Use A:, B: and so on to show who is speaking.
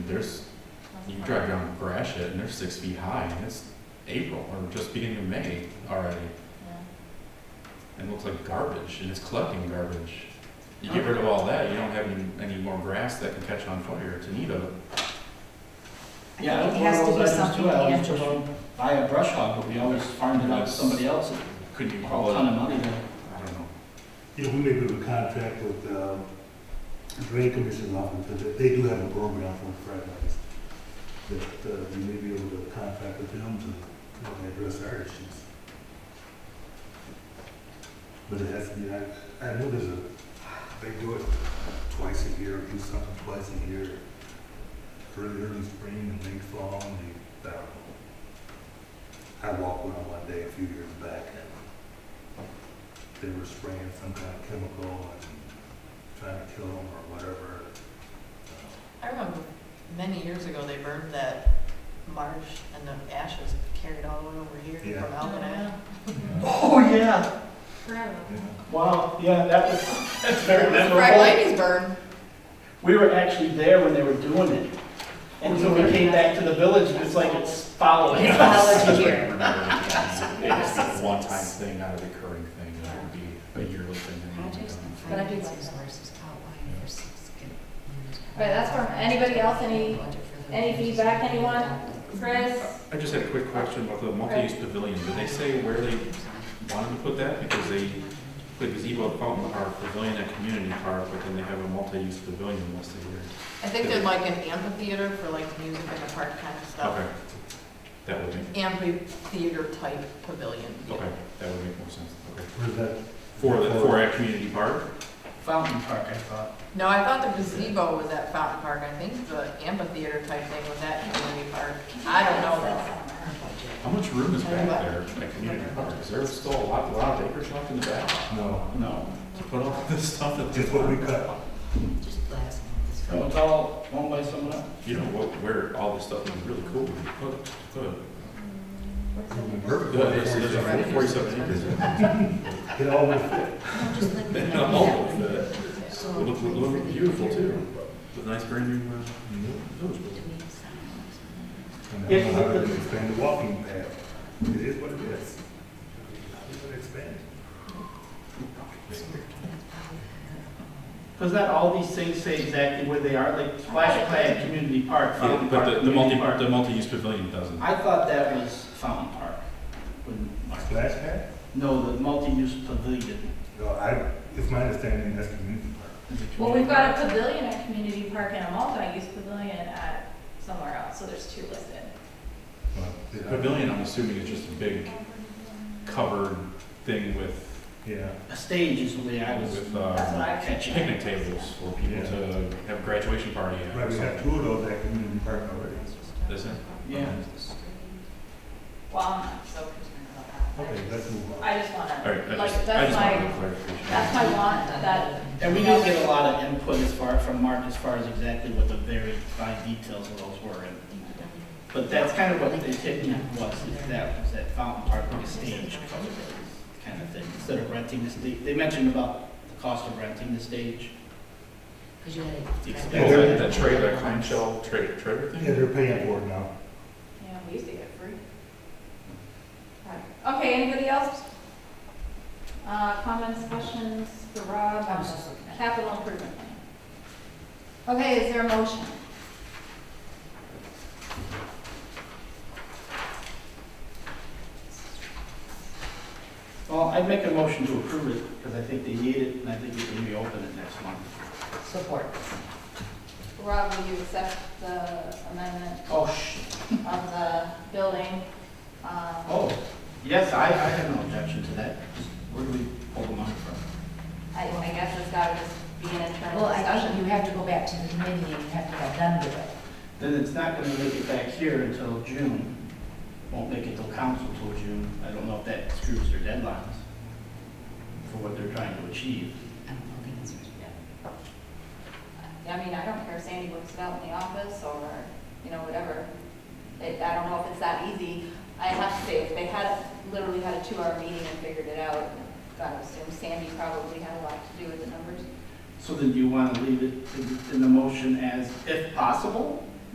A: there's, you drive down Gratiot and they're six feet high and it's April or just beginning of May already. And it looks like garbage and it's collecting garbage. You get rid of all that, you don't have any, any more grass that can catch on fire. It's in need of it.
B: Yeah,
C: I think it
B: one of
C: has to
B: those
C: be
B: items
C: something
B: too. I
C: the
B: always took
C: end.
B: out- Buy a brush hog, but we always farmed it out to somebody else,
A: Couldn't you
B: a
A: call
B: whole
A: it,
B: ton of
A: I
B: money there.
A: don't know.
D: You know, we may have a contract with, uh, the drain commission often, but they- they do have a program for Fridays. That, uh, we may be able to contract with them to, you know, address our issues. But it has to be, I, I know there's a, they do it twice a year, do something twice a year. Early, early spring and late fall, and they, I don't know. I walked one one day a few years back, and they were spraying some kind of chemical and trying to kill them or whatever.
E: I remember many years ago, they burned that marsh and the ashes carried all the way over here
D: Uh, Yeah.
E: from Almanac.
B: Oh, yeah,
C: Forever.
B: wow, yeah, that was, that's very
E: Fried ladies burn.
B: We were actually there when they were doing it. And so we came back to the village and it's like it's following
C: It's
B: us.
C: following here.
A: It's a one-time thing, not a recurring thing. That would be a yearly thing. that we would
C: Projects
A: do.
C: But I did some
F: sources outlined
A: for
C: But that's from, anybody else, any, any feedback, anyone? Chris?
A: I just had a quick question about the multi-use pavilion. Did they say where they wanted to put that? Because they put gazebo at Fountain Park, pavilion at Community Park, but then they have a multi-use pavilion listed here.
E: I think they'd like an amphitheater for like music in the park kind of stuff.
A: Okay. That would make,
E: Amphitheater type pavilion.
A: okay, that would make more sense, okay.
D: Where's that?
A: For the, for at Community Park?
B: Fountain Park, I thought.
E: No, I thought the gazebo was at Fountain Park. I think the amphitheater type thing was at Community Park. I don't know.
A: How much room is back there at Community Park? Is there still a lot, a lot of acres left in the back
D: No,
B: No.
A: to put all this stuff that
D: just what we cut.
F: Just last
B: It
F: month.
B: was all owned by someone else.
A: You know, what, where all this stuff is really cool, we put, put.
D: Perfect.
A: Good, there's, there's a forty-seven acres.
D: It always fit.
F: No, just let me
A: And
F: know.
A: a home with that.
F: So,
A: It looked, it
F: for
A: looked
F: the
A: beautiful
F: year,
A: too. The nice brand new, uh, village
F: to
A: building.
F: me, it sounds-
D: And I don't know how to expand the walking path. It is what it is. How do you expand
B: Because not all these things say exactly where they are, like Splash Pad, Community Park,
A: Yeah,
B: Fountain Park.
A: Uh, but the, the multi,
B: Community Park.
A: the multi-use pavilion doesn't.
B: I thought that was Fountain Park. when
D: it?
B: Mark-
D: Splash pad?
B: No, the multi-use pavilion.
D: No, I, it's my understanding that's community park.
B: is a
C: Well,
B: community
C: we've got
B: park.
C: a pavilion at Community Park and a multi-use pavilion at somewhere else, so there's two listed.
D: Well, it-
A: Pavilion, I'm assuming is just a big covered thing with,
D: Yeah.
B: A stage is the way I was
A: with,
C: That's what
A: uh,
C: I
B: catching.
A: picnic tables for people to have a graduation party at.
D: Right, we have two of those at community park already.
A: This is?
B: Yeah.
C: Well, I'm not so concerned about that.
D: Okay, let's move on.
C: I just
A: All right, I
C: wanna,
A: just,
C: like,
A: I
C: that's
A: just wanted
C: my,
A: to clarification.
C: that's my want, that,
B: And we did get a lot of input as far, from Mark, as far as exactly what the very fine details of those were. and- But that's kind of what the opinion was, is that, was that Fountain Park like a stage kind of thing, instead of renting the stage. They mentioned about the cost of renting the stage.
F: 'Cause you had
B: The
F: a-
A: Oh,
B: expense.
A: that, that tray, that clamshell tray, trailer thing?
D: Yeah, they're paying for it now.
C: you know, we used to get free. Right. Okay, anybody else? Uh, comments, questions for Rob
F: I
C: on
F: was
C: the
F: just looking at it.
C: capital improvement plan? Okay, is there a motion?
B: Well, I'd make a motion to approve it, because I think they need it, and I think we can reopen it next month.
F: Support.
C: Rob, will you accept the amendment
B: Oh, sh,
C: of the building? Um,
B: oh, yes, I, I have no objection to that. Where do we pull the money from?
C: I, I guess it's gotta just be an internal
F: Well, I think
C: discussion.
F: you have to go back to the committee and you have to get done with it.
B: then it's not gonna make it back here until June. Won't make it till council till June. I don't know if that screws their deadlines for what they're trying to achieve.
F: I don't know the answer to that.
C: I mean, I don't care if Sandy works it out in the office or, you know, whatever. It, I don't know if it's that easy. I have to say, if they had, literally had a two-hour meeting and figured it out, I would assume Sandy probably had a lot to do with the numbers.
B: So then you wanna leave it in- in the motion as if possible?